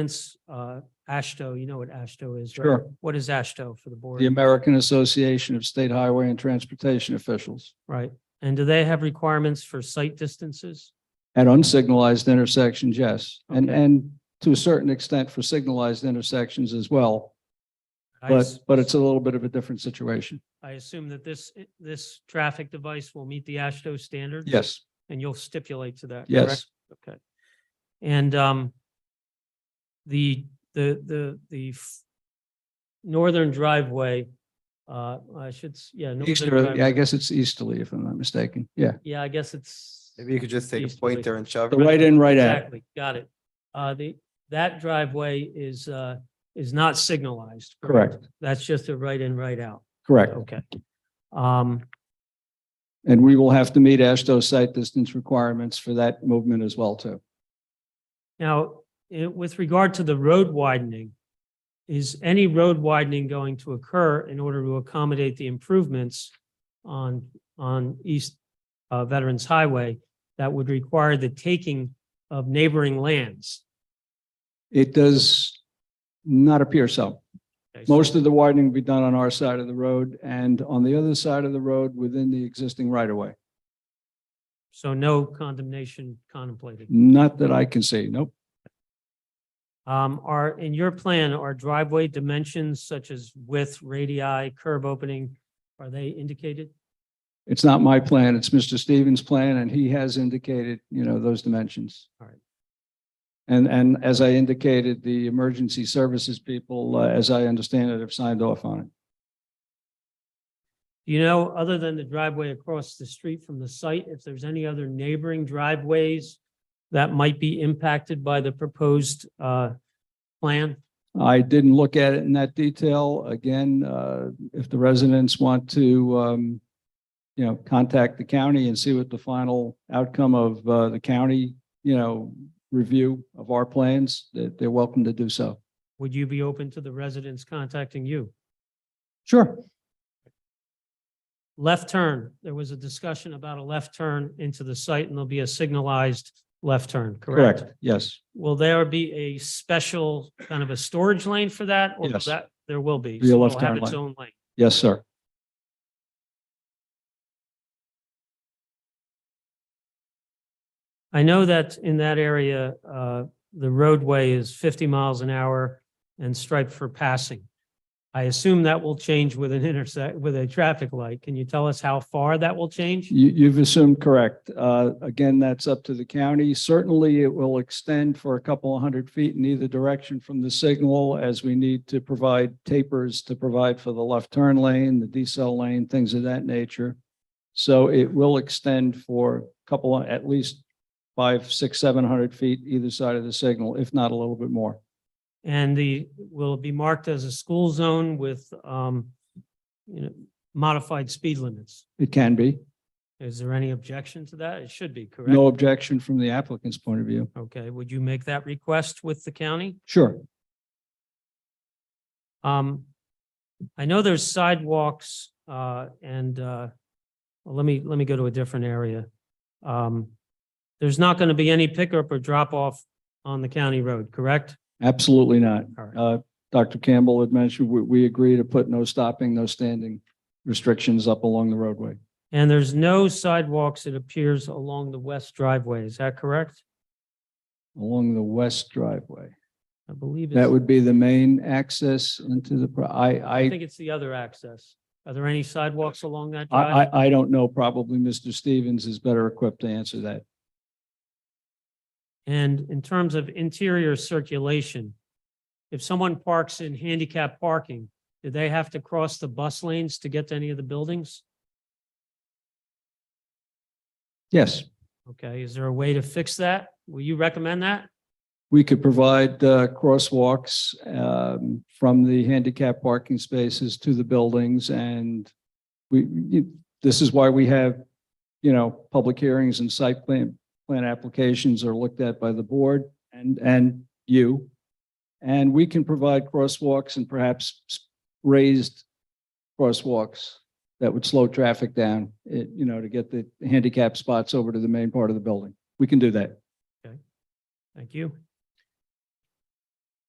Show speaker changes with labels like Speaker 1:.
Speaker 1: Comments, uh, ASHTO, you know what ASHTO is, right?
Speaker 2: Sure.
Speaker 1: What is ASHTO for the board?
Speaker 2: The American Association of State Highway and Transportation Officials.
Speaker 1: Right. And do they have requirements for site distances?
Speaker 2: At unsignalized intersections, yes, and,
Speaker 1: Okay.
Speaker 2: and to a certain extent for signalized intersections as well.
Speaker 1: I
Speaker 2: But,
Speaker 1: s-
Speaker 2: but it's a little bit of a different situation.
Speaker 1: I assume that this, this traffic device will meet the ASHTO standards?
Speaker 2: Yes,
Speaker 1: And you'll stipulate to that? correct?
Speaker 2: yes.
Speaker 1: Okay. And um, the, the, the, the f- northern driveway, uh, I should, s- yeah. northern
Speaker 2: Easterly, I
Speaker 1: driveway.
Speaker 2: guess it's easterly if I'm not mistaken. Yeah,
Speaker 1: Yeah, I guess it's.
Speaker 3: Maybe you could just take a
Speaker 1: Easterly.
Speaker 3: pointer and shove
Speaker 2: the
Speaker 3: it.
Speaker 2: right in, right out.
Speaker 1: Exactly, got it. Uh, the, that driveway is, uh, is not signalized.
Speaker 2: Correct,
Speaker 1: That's just a right in, right out.
Speaker 2: correct.
Speaker 1: Okay. Um,
Speaker 2: And we will have to meet ASHTO site distance requirements for that movement as well too.
Speaker 1: now, eh, with regard to the road widening, is any road widening going to occur in order to accommodate the improvements on, on East uh, Veterans Highway that would require the taking of neighboring lands?
Speaker 2: It does not appear so.
Speaker 1: Okay, so-
Speaker 2: Most of the widening will be done on our side of the road and on the other side of the road within the existing right of way.
Speaker 1: So no condemnation contemplated?
Speaker 2: Not that I can see, nope.
Speaker 1: Um, are, in your plan, are driveway dimensions such as width, radii, curb opening, are they indicated?
Speaker 2: It's not my plan, it's Mr. Stevens' plan, and he has indicated, you know, those dimensions.
Speaker 1: All right.
Speaker 2: And, and as I indicated, the emergency services people, uh, as I understand it, have signed off on it.
Speaker 1: Do You know, other than the driveway across the street from the site, if there's any other neighboring driveways that might be impacted by the proposed, uh, plan?
Speaker 2: I didn't look at it in that detail. Again, uh, if the residents want to, um, you know, contact the county and see what the final outcome of, uh, the county, you know, review of our plans, that they're welcome to do so.
Speaker 1: Would you be open to the residents contacting you?
Speaker 2: Sure.
Speaker 1: Left turn, there was a discussion about a left turn into the site and there'll be a signalized left turn, correct?
Speaker 2: Yes,
Speaker 1: Will there be a special kind of a storage lane for that? Or will
Speaker 2: Yes.
Speaker 1: that, there will be.
Speaker 2: Be a
Speaker 1: so it'll
Speaker 2: left turn
Speaker 1: have its
Speaker 2: lane.
Speaker 1: own lane.
Speaker 2: yes, sir.
Speaker 1: I know that in that area, uh, the roadway is fifty miles an hour and striped for passing. I assume that will change with an intersect, with a traffic light. Can you tell us how far that will change?
Speaker 2: You, you've assumed correct. Uh, again, that's up to the county. Certainly, it will extend for a couple of hundred feet in either direction from the signal as we need to provide tapers to provide for the left turn lane, the decel lane, things of that nature. So it will extend for a couple, of- at least five, six, seven hundred feet either side of the signal, if not a little bit more.
Speaker 1: And the, will it be marked as a school zone with, um, you know, modified speed limits?
Speaker 2: It can be.
Speaker 1: Is there any objection to that? It should be, correct?
Speaker 2: No objection from the applicant's point of view.
Speaker 1: Okay, would you make that request with the county?
Speaker 2: Sure.
Speaker 1: Um, I know there's sidewalks, uh, and, uh, well, let me, let me go to a different area. Um, there's not going to be any pickup or drop off on the county road, correct?
Speaker 2: Absolutely not.
Speaker 1: All right.
Speaker 2: Uh, Dr. Campbell had mentioned, we, we agree to put no stopping, no standing restrictions up along the roadway.
Speaker 1: And there's no sidewalks, it appears, along the west driveway. Is that correct?
Speaker 2: Along the west driveway.
Speaker 1: I believe. it's-
Speaker 2: That would be the main access into the, pro- I,
Speaker 1: I
Speaker 2: I,
Speaker 1: think it's the other access. Are there any sidewalks along that
Speaker 2: I,
Speaker 1: drive?
Speaker 2: I, I don't know. Probably Mr. Stevens is better equipped to answer that.
Speaker 1: And in terms of interior circulation, if someone parks in handicap parking, do they have to cross the bus lanes to get to any of the buildings?
Speaker 2: Yes,
Speaker 1: Okay, is there a way to fix that? Will you recommend that?
Speaker 2: we could provide, uh, crosswalks, um, from the handicap parking spaces to the buildings and we, you- this is why we have, you know, public hearings and site plan, plan applications are looked at by the board and, and you. And we can provide crosswalks and perhaps s- raised crosswalks that would slow traffic down, it, you know, to get the handicap spots over to the main part of the building. We can do that.
Speaker 1: Thank you.